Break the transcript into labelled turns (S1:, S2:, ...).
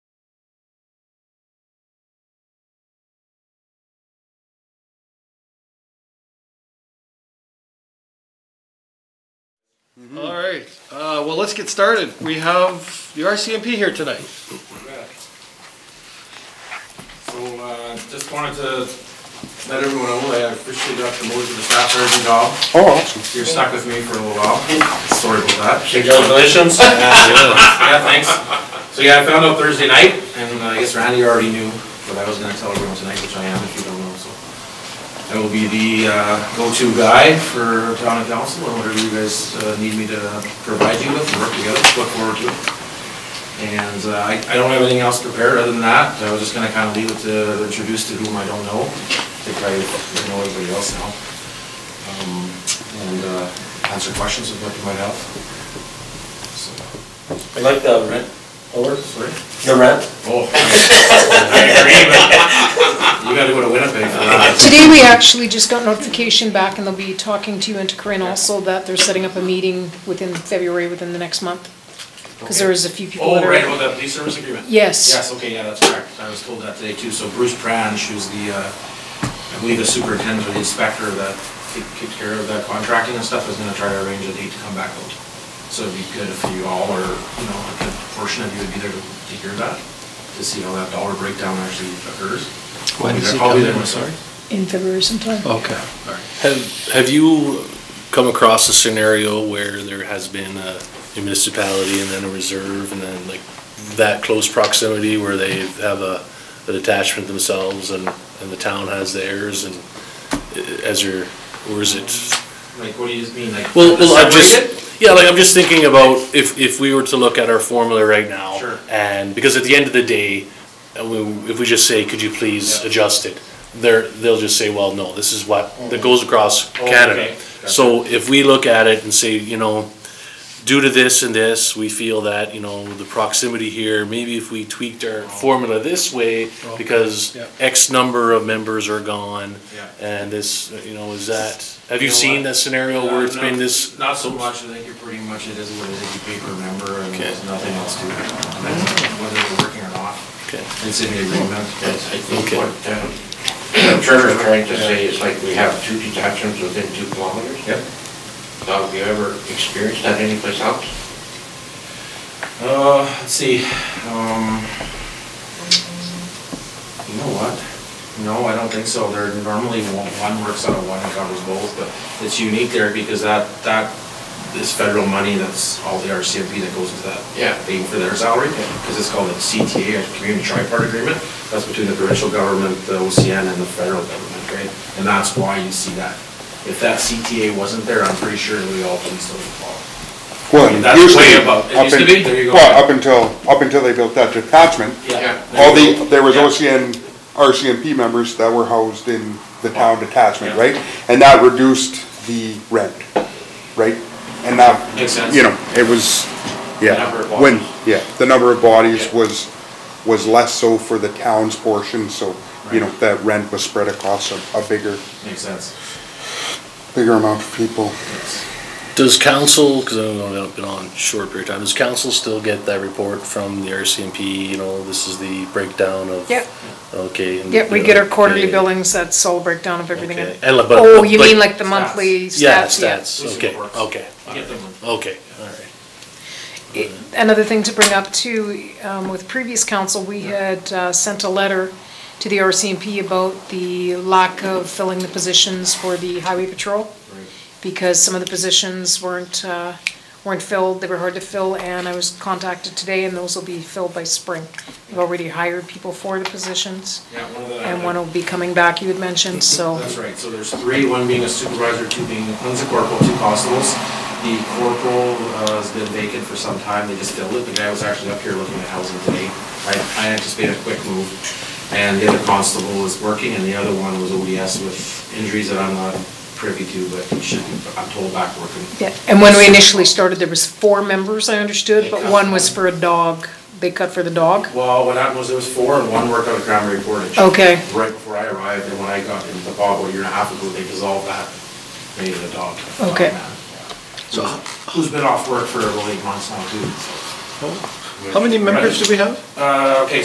S1: All right, uh, well, let's get started. We have the RCMP here tonight.
S2: So, uh, just wanted to let everyone know that I officially got promoted to the staff sergeant job.
S3: Oh, awesome.
S2: You're stuck with me for a little while. Sorry about that.
S4: Congratulations.
S2: Yeah, thanks. So, yeah, I found out Thursday night, and uh, I guess Randy already knew, but I was gonna tell everyone tonight, which I am, if you don't know, so. I will be the, uh, go-to guy for town and council, and whatever you guys, uh, need me to provide you with, work together, look forward to it. And uh, I I don't have anything else prepared other than that. I was just going to kind of leave it to introduce to whom I don't know. I think I know everybody else now. Um, And uh, answer questions if you might have. So,
S4: I like the rent, over,
S2: Sorry?
S4: the rent.
S2: Oh. I agree, but you got to go to Winnipeg for that.
S5: Today, we actually just got notification back, and they'll be talking to you and to Corinne also, that they're setting up a meeting within February, within the next month. Because there is a few people
S2: Oh,
S5: that
S2: right,
S5: are.
S2: about that police service agreement.
S5: Yes,
S2: Yes, okay, yeah, that's correct. I was told that today too. So Bruce Pranch, who's the, uh, I believe the superintendent or the inspector that ta- takes care of that contracting and stuff, is gonna try to arrange a date to come back out. So it'd be good if you all or you know, a good portion of you would be there to to hear that, to see how that dollar breakdown actually occurs.
S1: When is he
S2: Probably
S1: coming?
S2: there, sorry.
S5: in February sometime.
S6: Oh.
S1: Okay, all right.
S6: Have, have you come across a scenario where there has been a municipality and then a reserve and then like that close proximity where they have a, a detachment themselves and, and the town has theirs and uh, as your, or is it
S2: Like, what do you just mean, like?
S6: well, well, I'm
S2: separate it?
S6: just, yeah, like, I'm just thinking about if, if we were to look at our formula right now.
S2: Sure.
S6: And, because at the end of the day, uh, we- if we just say, could you please
S2: Yeah.
S6: adjust it? They're, they'll just say, well, no, this is what, that goes across
S2: Oh,
S6: Canada.
S2: okay. Gotcha.
S6: So if we look at it and say, you know, due to this and this, we feel that, you know, the proximity here, maybe if we tweaked
S2: Oh.
S6: our formula this way, because
S1: yeah.
S6: X number of members are gone,
S2: Yeah.
S6: and this, you know, is that, have
S2: You
S6: you
S2: know
S6: seen
S2: what?
S6: that scenario where it's been this?
S2: Uh, Not so much, I think you're pretty much, it is what it is, you pay per member and there's
S6: Okay.
S2: nothing else to it. Whether they're working or not,
S6: Okay.
S2: it's in the agreement.
S4: Yes, I think
S6: Okay.
S4: what uh, the trevor's trying to say is like we have two detachments within two kilometers.
S2: Yep.
S4: Now, Have you ever experienced that anyplace else?
S2: Uh, let's see, um, you know what? No, I don't think so. There normally one, one works out of one and covers both, but it's unique there because that, that is federal money, that's all the RCMP that goes into that.
S4: Yeah.
S2: Paying for their salary, because it's called a CTA, a Community Tripart Agreement. That's between the provincial government, the OCN, and the federal government, right? And that's why you see that. If that CTA wasn't there, I'm pretty sure we all would still follow.
S3: Well,
S2: That's
S3: usually
S2: way above- it
S3: up
S2: used to
S3: in-
S2: be? There you go.
S3: Well, up until, up until they built that detachment,
S4: Yeah.
S3: all the, there was
S2: Yeah.
S3: OCN, RCMP members that were housed in the town detachment,
S2: Yeah.
S3: right? And that reduced the rent, right? And that,
S2: Makes sense.
S3: you know, it was, yeah.
S2: number of
S3: When,
S2: bodies.
S3: yeah, the number of bodies
S2: Yeah.
S3: was, was less so for the town's portion, so, you know,
S2: Right.
S3: that rent was spread across a, a bigger,
S2: Makes sense.
S3: bigger amount of people.
S6: Does council, because I've only been on a short period of time, does council still get that report from the RCMP, you know, this is the breakdown of?
S5: Yep.
S6: Okay. and-
S5: Yep, we get our quarterly
S6: okay.
S5: billings, that's all breakdown of everything.
S6: Okay.
S5: in-
S6: And like- but-
S5: Oh,
S6: but-
S5: you mean
S6: but-
S5: like the monthly
S6: Yeah,
S5: stats, yeah.
S6: stats, okay,
S2: Reports.
S6: okay,
S2: You get them.
S6: okay, all right.
S5: It- Another thing to bring up too, um, with previous council, we had uh, sent a letter to the RCMP about the lack of filling the positions for the highway patrol. because some of the positions weren't, uh, weren't filled, they were hard to fill, and I was contacted today, and those will be filled by spring. We've already hired people for the positions,
S2: Yeah, one of the.
S5: and one will be coming back, you had mentioned, so.
S2: That's right, so there's three, one being a supervisor, two being, one's a corporal, two constables. The corporal uh, has been vacant for some time, they just filled it, the guy was actually up here looking at housing today. I- I anticipate a quick move. And the other constable is working, and the other one was ODS with injuries that I'm not privy to, but he should be, I'm told, back working.
S5: Yeah, and when we initially started, there was four members, I understood, but one was for a dog, they cut for the dog.
S2: Well, what happened was there was four and one worked out of Cranberry Portage.
S5: Okay.
S2: Right before I arrived, and when I got into the bog a year and a half ago, they dissolved that, made it a dog.
S5: Okay.
S2: dog man, yeah. So, who's been off work for about eight months now too? so.
S1: How many members do we have?
S2: Uh, okay,